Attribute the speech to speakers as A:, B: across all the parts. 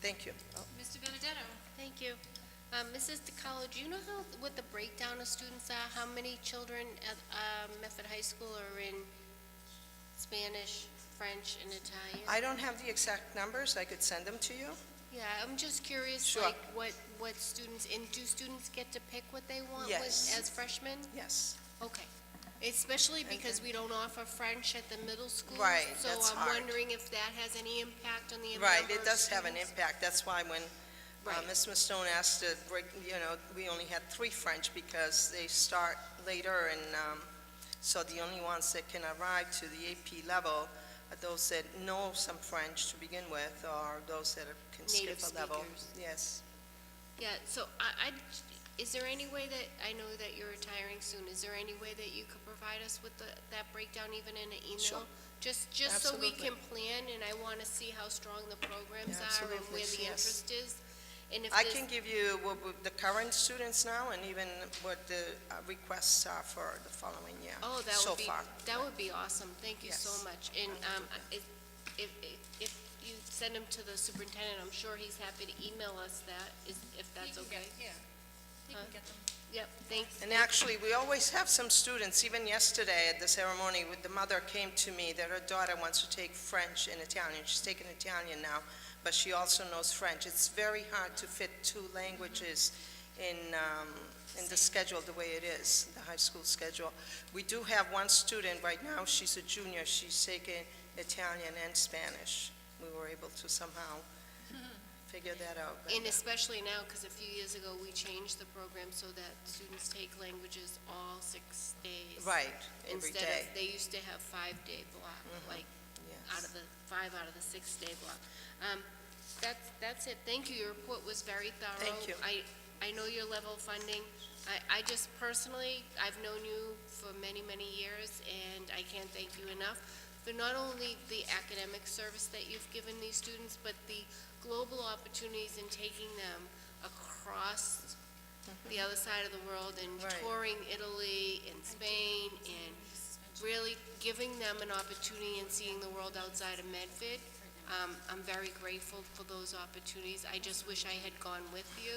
A: Thank you.
B: Mr. Benedetto?
C: Thank you. Um, Mrs. DiCarlo, do you know how, what the breakdown of students are? How many children at um, Medford High School are in Spanish, French, and Italian?
A: I don't have the exact numbers, I could send them to you.
C: Yeah, I'm just curious,
A: Sure.
C: like, what, what students, and do students get to pick what they want with-
A: Yes.
C: as freshmen?
A: Yes.
C: Okay. Especially because we don't offer French at the middle school.
A: Right, that's
C: So I'm
A: hard.
C: wondering if that has any impact on the number
A: Right,
C: of
A: it does have an
C: students.
A: impact, that's why when uh,
C: Right.
A: Ms. Stone asked to break, you know, we only had three French because they start later and, um, so the only ones that can arrive to the AP level are those that know some French to begin with, or those that are- can skip
C: Native
A: a level.
C: speakers.
A: Yes.
C: Yeah, so I, I- is there any way that, I know that you're retiring soon, is there any way that you could provide us with the, that breakdown even in an
A: Sure.
C: email? Just, just so we
A: Absolutely.
C: can plan, and I want to see how strong the programs
A: Yeah,
C: are and
A: absolutely,
C: where the
A: yes.
C: interest is. And if
A: I
C: this-
A: can give you what what the current students now and even what the uh, requests are for the following year.
C: Oh, that
A: so
C: would be,
A: far.
C: that would be awesome, thank you
A: Yes.
C: so much. And um, if, if, if you send them to the superintendent, I'm sure he's happy to email us that, is- if that's
B: He can
C: okay.
B: get- Yeah. He
C: Huh?
B: can get them.
C: Yep, thanks.
A: And actually, we always have some students, even yesterday at the ceremony, with the mother came to me that her daughter wants to take French and Italian. She's taking Italian now, but she also knows French. It's very hard to fit two languages in, um, in the schedule the way it is, the high school schedule. We do have one student right now, she's a junior, she's taking Italian and Spanish. We were able to somehow figure that out. but-
C: And especially now, because a few years ago, we changed the program so that students take languages all six days.
A: Right, every
C: Instead
A: day, Mm-hmm.
C: of, they used to have five-day block, like, out
A: yes.
C: of the, five out of the six-day block. Um, That's, that's it. Thank you. Your report was very thorough.
A: Thank you.
C: I, I know your level of funding. I, I just personally, I've known you for many, many years, and I can't thank you enough for not only the academic service that you've given these students, but the global opportunities in taking them across the other side of the world and
A: Mm-hmm. Right.
C: touring Italy and Spain and really giving them an opportunity and seeing the world outside of Medford. Um, I'm very grateful for those opportunities. I just wish I had gone with you.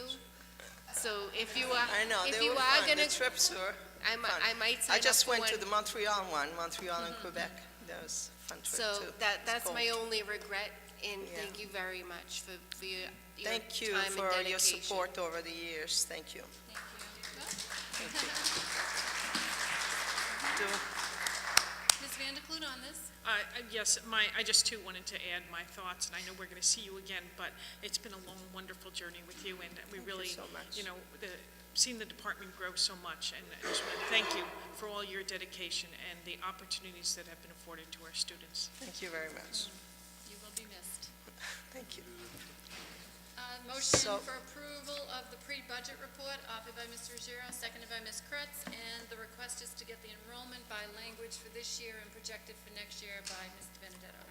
C: So if you are,
A: I know,
C: if
A: they
C: you
A: were
C: are
A: fun,
C: gonna,
A: the trips were
C: I might,
A: fun.
C: I might sign
A: I
C: up
A: just
C: for
A: went
C: one. Mm-hmm.
A: to the Montreal one, Montreal and Quebec. That was a fun trip,
C: So
A: too.
C: that, that's my
A: cold.
C: only regret, and
A: Yeah.
C: thank you very much for, for your, your time and
A: Thank you
C: dedication.
A: for your support over the years. Thank you. Do-
B: Ms. Van de Clune on this?
D: Uh, uh, Yes, my, I just too wanted to add my thoughts, and I know we're going to see you again, but it's been a long, wonderful journey with you, and we
A: you
D: really,
A: so much.
D: you know, the, seen the department grow so much, and I just want to thank you for all your dedication and the opportunities that have been afforded to our students.
A: Thank you very much.
B: You will be missed.
A: Thank you.
B: Uh, Motion
A: So-
B: for approval of the pre-budget report offered by Mr. Ruggiero, seconded by Ms. Kretz, and the request is to get the enrollment by language for this year and projected for next year by Mr. Benedetto.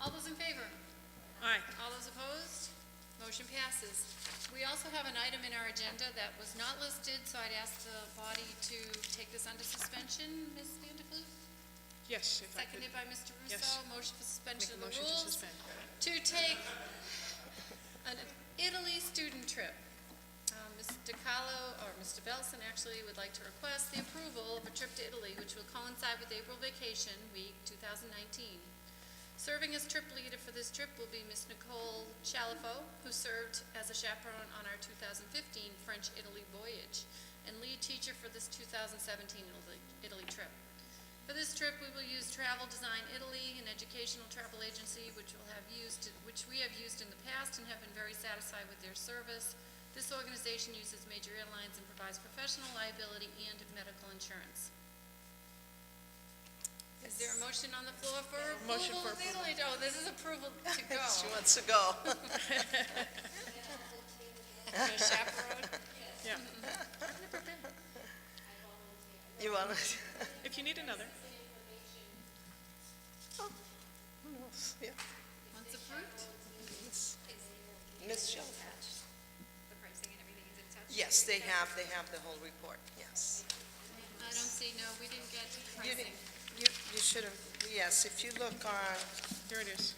B: All those in favor?
D: Aye.
B: All those opposed? Motion passes. We also have an item in our agenda that was not listed, so I'd ask the body to take this under suspension, Ms. Van de Clune?
D: Yes, if I could
B: Seconded by Mr.
D: Yes.
B: Russo. Motion for
D: make
B: suspension
D: a
B: of the
D: motion to
B: rules
D: suspend.
B: to take an Italy student trip. Um, Ms. DiCarlo, or Mr. Belson actually, would like to request the approval of a trip to Italy, which will coincide with April vacation week 2019. Serving as trip leader for this trip will be Ms. Nicole Chalifo, who served as a chaperone on our 2015 French-Italy voyage, and lead teacher for this 2017 Italy- Italy trip. For this trip, we will use Travel Design Italy, an educational travel agency which will have used, which we have used in the past and have been very satisfied with their service. This organization uses major airlines and provides professional liability and medical insurance. Is there a motion on the floor for
D: Motion
B: approval
D: for
B: of Italy? Oh, this is approval to go.
A: She wants to go.
B: The chaperone.
D: Yeah.
A: You want to?
D: If you need another,
A: oh, Yeah.
B: Once approved,
A: Ms. Shelfer?
B: the pricing and everything is attached.
A: Yes, they have, they have the whole report, yes.
B: I don't see, no, we didn't get
A: You
B: pricing.
A: didn't- You, you should have, yes, if you look on,
D: there it is.